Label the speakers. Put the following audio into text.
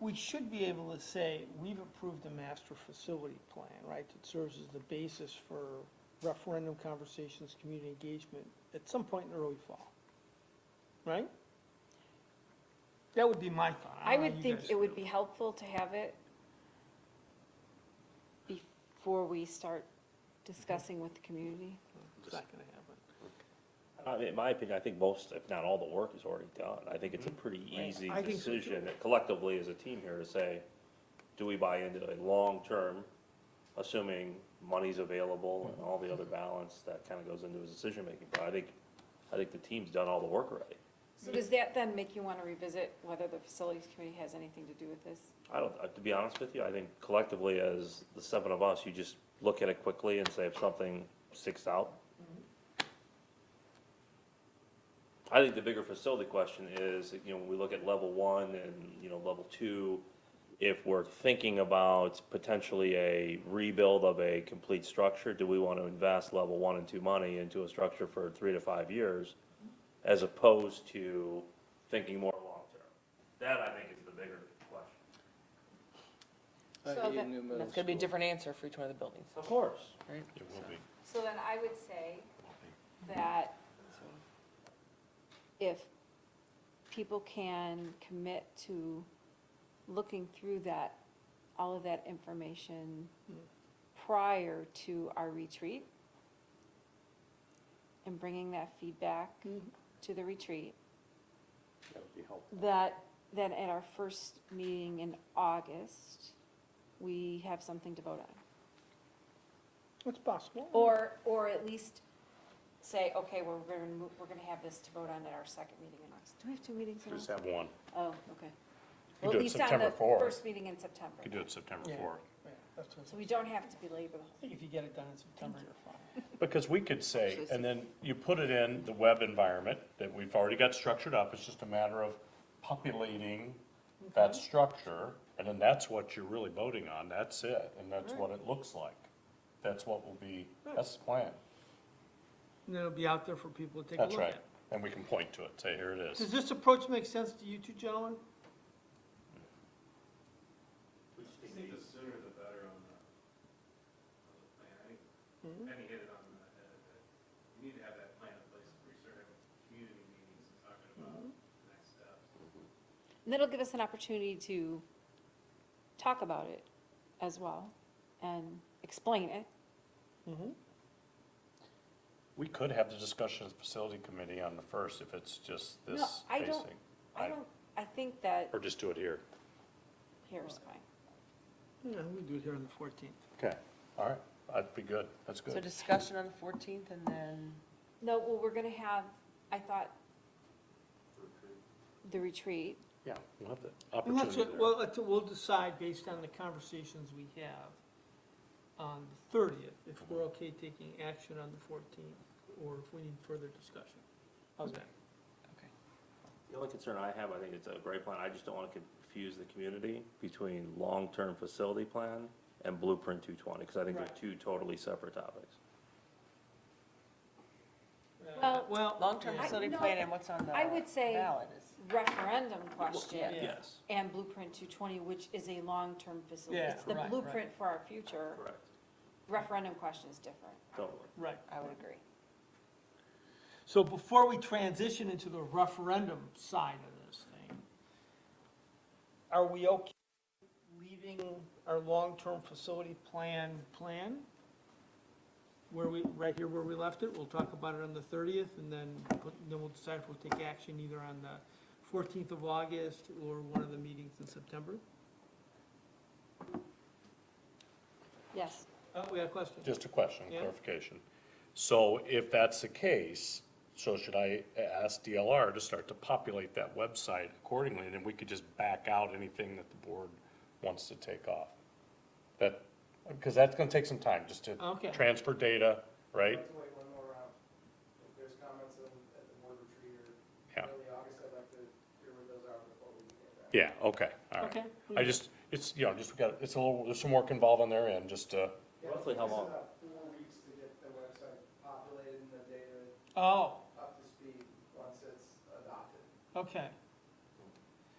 Speaker 1: we should be able to say, we've approved a master facility plan, right? That serves as the basis for referendum conversations, community engagement, at some point in the early fall, right? That would be my thought.
Speaker 2: I
Speaker 1: don't know
Speaker 2: would
Speaker 1: Uh, you
Speaker 2: think
Speaker 1: guys
Speaker 2: it would
Speaker 1: feel.
Speaker 2: be helpful to have it before we start discussing with the community.
Speaker 1: It's not gonna happen.
Speaker 3: I mean, in my opinion, I think most, if not all, the work is already done. I think it's a pretty easy
Speaker 1: I think so, too.
Speaker 3: decision collectively as a team here to say, do we buy into a long-term, assuming money's available and all the other balance that kind of goes into his decision-making? But I think, I think the team's done all the work already.
Speaker 2: So does that then make you want to revisit whether the facilities committee has anything to do with this?
Speaker 3: I don't, uh, to be honest with you, I think collectively as the seven of us, you just look at it quickly and say if something sticks out. I think the bigger facility question is, you know, when we look at level one and, you know, level two, if we're thinking about potentially a rebuild of a complete structure, do we want to invest level one and two money into a structure for three to five years? As opposed to thinking more long-term? That I think is the bigger question.
Speaker 4: Uh,
Speaker 2: So
Speaker 4: Eden
Speaker 2: that-
Speaker 4: New Middle
Speaker 5: That's gonna be a
Speaker 4: School.
Speaker 5: different answer for each one of the buildings,
Speaker 3: Of course.
Speaker 5: right?
Speaker 6: It will be.
Speaker 2: So then I would say that if people can commit to looking through that, all of that information prior to our retreat and bringing that feedback to the retreat,
Speaker 3: That would be helpful.
Speaker 2: that, then at our first meeting in August, we have something to vote on.
Speaker 1: It's possible.
Speaker 2: Or, or at least say, okay, we're, we're, gonna move- we're gonna have this to vote on at our second meeting in August. Do we have two meetings in
Speaker 6: Just
Speaker 2: August?
Speaker 6: have one.
Speaker 2: Oh, okay.
Speaker 6: You
Speaker 2: Well,
Speaker 6: do
Speaker 2: at
Speaker 6: it
Speaker 2: least on
Speaker 6: September
Speaker 2: the
Speaker 6: 4th.
Speaker 2: first meeting in September.
Speaker 6: You could do it September
Speaker 1: Yeah.
Speaker 6: 4th.
Speaker 1: Yeah, that's what-
Speaker 2: So we don't have to belabor the
Speaker 1: I
Speaker 2: whole.
Speaker 1: think if you get it done in September, you're fine.
Speaker 6: Because we could say, and then you put it in the web environment that we've already got structured up, it's just a matter of populating that structure, and then that's what you're really voting on, that's it, and that's what it looks like. That's what will be, that's the plan,
Speaker 1: And then it'll be out there for people to take a
Speaker 6: that's
Speaker 1: look
Speaker 6: right,
Speaker 1: at.
Speaker 6: and we can point to it, say, here it is.
Speaker 1: Does this approach make sense to you two gentlemen?
Speaker 7: I think the sooner the better on the, on the plan. I think Penny hit it on the head, that you need to have that plan in place before you start having community meetings and talking about the next steps.
Speaker 2: And that'll give us an opportunity to talk about it as well and explain it.
Speaker 6: We could have the discussion of the facility committee on the first, if it's just
Speaker 2: No,
Speaker 6: this
Speaker 2: I
Speaker 6: facing.
Speaker 2: don't- I
Speaker 6: I-
Speaker 2: don't, I think that,
Speaker 6: Or just do it here.
Speaker 2: here's fine.
Speaker 1: Yeah, we do it here on the fourteenth.
Speaker 6: Okay. All right, that'd be good, that's
Speaker 5: So
Speaker 6: good.
Speaker 5: discussion on the fourteenth and then,
Speaker 2: No, well, we're gonna have, I thought, the retreat.
Speaker 6: Yeah, we'll have the
Speaker 1: And that's
Speaker 6: opportunity
Speaker 1: what,
Speaker 6: there.
Speaker 1: well, that's what we'll decide based on the conversations we have on the thirtieth, if we're okay taking action on the fourteenth, or if we need further discussion. How's that?
Speaker 5: okay.
Speaker 3: The only concern I have, I think it's a great plan, I just don't want to confuse the community between long-term facility plan and blueprint two twenty, because I think they're
Speaker 1: Right.
Speaker 3: two totally separate topics.
Speaker 1: Uh,
Speaker 2: Well,
Speaker 1: Well.
Speaker 5: Long-term
Speaker 1: yeah.
Speaker 5: facility
Speaker 2: no,
Speaker 5: plan and what's on the
Speaker 2: I would say-
Speaker 5: ballot is.
Speaker 2: Referendum question.
Speaker 1: Yeah.
Speaker 3: Yes,
Speaker 2: and Blueprint 220, which is a long-term facility.
Speaker 1: Yeah,
Speaker 2: It's the
Speaker 1: right, right.
Speaker 2: blueprint for our future.
Speaker 3: correct,
Speaker 2: Referendum question is different.
Speaker 3: totally.
Speaker 1: Right.
Speaker 5: I would agree.
Speaker 1: So before we transition into the referendum side of this thing, are we okay leaving our long-term facility plan, plan? Where we, right here where we left it, we'll talk about it on the thirtieth, and then, put- then we'll decide if we'll take action either on the fourteenth of August or one of the meetings in September.
Speaker 2: Yes.
Speaker 1: Oh, we had a question.
Speaker 6: Just a question,
Speaker 1: Yeah.
Speaker 6: clarification. So if that's the case, so should I ask DLR to start to populate that website accordingly? And then we could just back out anything that the board wants to take off? That, because that's gonna take some time, just to
Speaker 1: Okay.
Speaker 6: transfer data, right?
Speaker 8: Let's wait one more round. If there's comments in, at the board retreat or
Speaker 6: Yeah.
Speaker 8: early August, I'd like to hear what those are before we get back.
Speaker 6: Yeah, okay, all right.
Speaker 1: Okay.
Speaker 6: I just, it's, you know, just, we got, it's a little, there's some work involved on their end, just to,
Speaker 8: Yeah,
Speaker 3: Roughly how long?
Speaker 8: It's about four weeks to get the website populated and the data
Speaker 1: Oh,
Speaker 8: up to speed once it's adopted.
Speaker 1: okay,